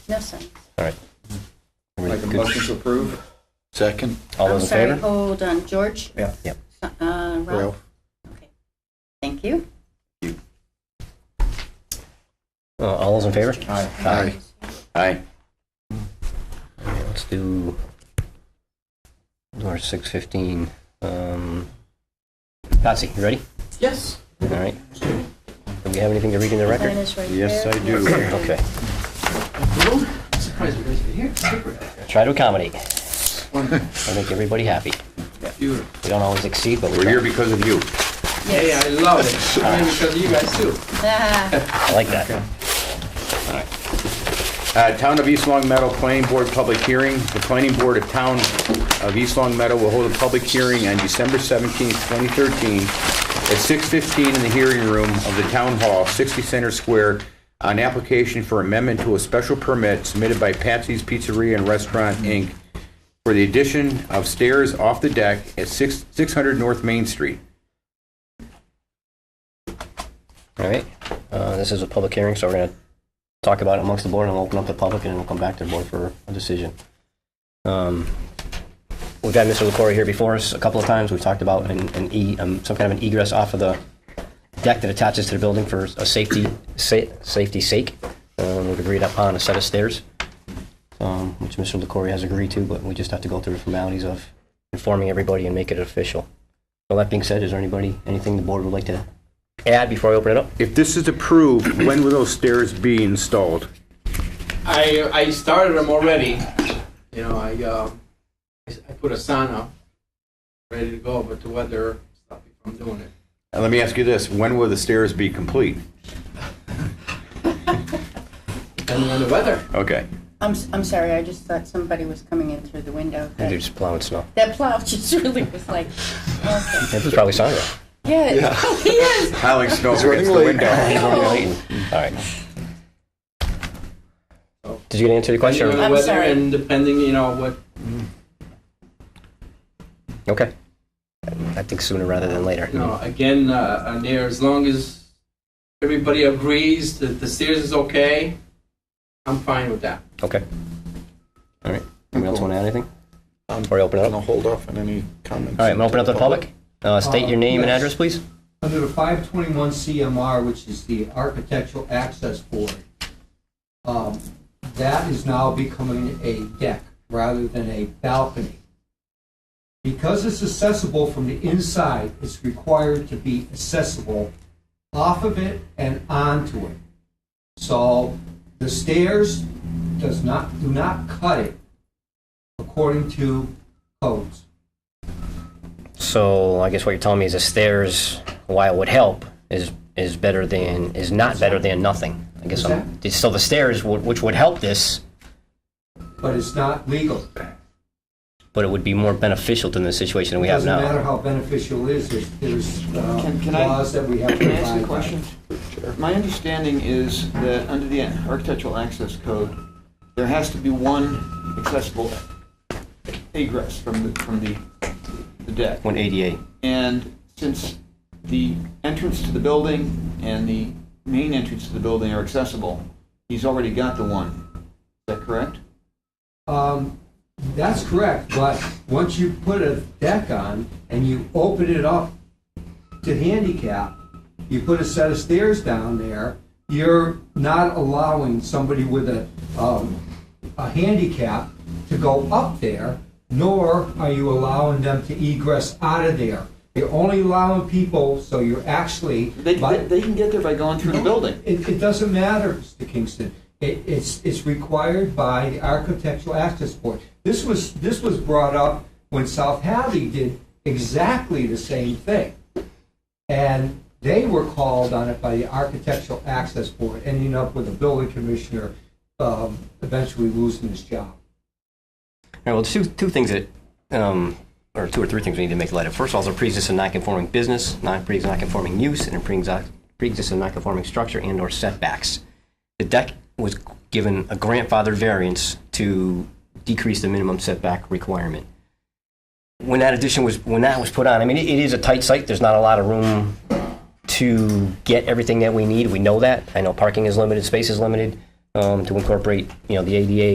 No sense. All right. Make a motion to approve? Second, All I'm those in sorry, favor? Hold on, George? Yeah. Yep. Uh, Ralph? Ralph. Okay. Thank you. Uh, All those in favor? Aye. Aye. Aye. Let's do number six fifteen. Um, Patsy, you ready? Yes. All right. Do we have anything to read in the record? Mine is right Yes, there. I do. Okay. Surprised you guys are here. Try to accommodate. I make everybody happy. Beautiful. We don't always exceed, but we we're here try. because of you. Hey, Yes. I love it. I mean, because of you guys too. Ah, I like that. Uh, Town of East Long Meadow Planning Board Public Hearing. The Planning Board of Town of East Long Meadow will hold a public hearing on December 17, 2013, at 6:15 in the hearing room of the Town Hall, 60 Center Square, on application for amendment to a special permit submitted by Patsy's Pizzeria and Restaurant, Inc., for the addition of stairs off the deck at six 600 North Main Street. All right. Uh, This is a public hearing, so we're going to talk about it amongst the board and we'll open up the public and then we'll come back to the board for a decision. Um, We've had Mr. LaCory here before us a couple of times. We've talked about an, an e, um, some kind of an egress off of the deck that attaches to the building for a safety, sa- safety sake. Um, We've agreed upon a set of stairs, um, which Mr. LaCory has agreed to, but we just have to go through the formalities of informing everybody and make it official. So that being said, is there anybody, anything the board would like to add before I open it up? If this is approved, when will those stairs be installed? I, I started them already. You know, I, uh, I s- I put a sign up, ready to go, but the weather stopped me from doing it. And let me ask you this, when will the stairs be complete? Depending on the weather. Okay. I'm, s- I'm sorry, I just thought somebody was coming in through the window. They're just plowing snow. That plow just really was like, okay. It was probably Sandra. Yeah, it probably is. Piling snow against the window. All right. Did you get an answer to your question? or- Depending on I'm the weather sorry. and depending, you know, what, Okay. I think sooner rather than later. you know, again, uh, on there, as long as everybody agrees that the stairs is okay, I'm fine with that. Okay. All right. Anyone else want to add anything? Before I open it up? I'll hold off on any comments. All right, I'm gonna open up to the public. Uh, state your name and address, please. under the 521 CMR, which is the Architectural Access Board, um, that is now becoming a deck rather than a balcony. Because it's accessible from the inside, it's required to be accessible off of it and onto it. So the stairs does not, do not cut it according to codes. So I guess what you're telling me is the stairs, while it would help, is, is better than, is not better than nothing. I guess I'm, so the stairs, would- which would help this, But it's not legal. but it would be more beneficial than the situation we have now. Doesn't matter how beneficial it is, there's- there's Can- uh, can I- laws that we have to Can I ask abide you by. a question? My understanding is that under the Architectural Access Code, there has to be one accessible egress from the, from the the deck. One eighty-eight. And since the entrance to the building and the main entrance to the building are accessible, he's already got the one. Is that correct? Um, That's correct, but once you put a deck on and you open it up to handicap, you put a set of stairs down there, you're not allowing somebody with a, um, a handicap to go up there, nor are you allowing them to egress out of there. You're only allowing people, so you're actually. They, by- they they can get there by going through the building. It, it doesn't matter, Mr. Kingston. It, it's, it's required by the Architectural Access Board. This was, this was brought up when South Hadley did exactly the same thing. And they were called on it by the Architectural Access Board, ending up with the building commissioner um, eventually losing his job. All right, well, two, two things that, um, or two or three things we need to make light of. First of all, it's a pre-existing non-conforming business, non- pre-existing non-conforming use, and a pre-exi- pre-existing non-conforming structure and/or setbacks. The deck was given a grandfather variance to decrease the minimum setback requirement. When that addition was, when that was put on, I mean, it- it is a tight site, there's not a lot of room to get everything that we need, we know that. I know parking is limited, space is limited. um, to incorporate, you know, the ADA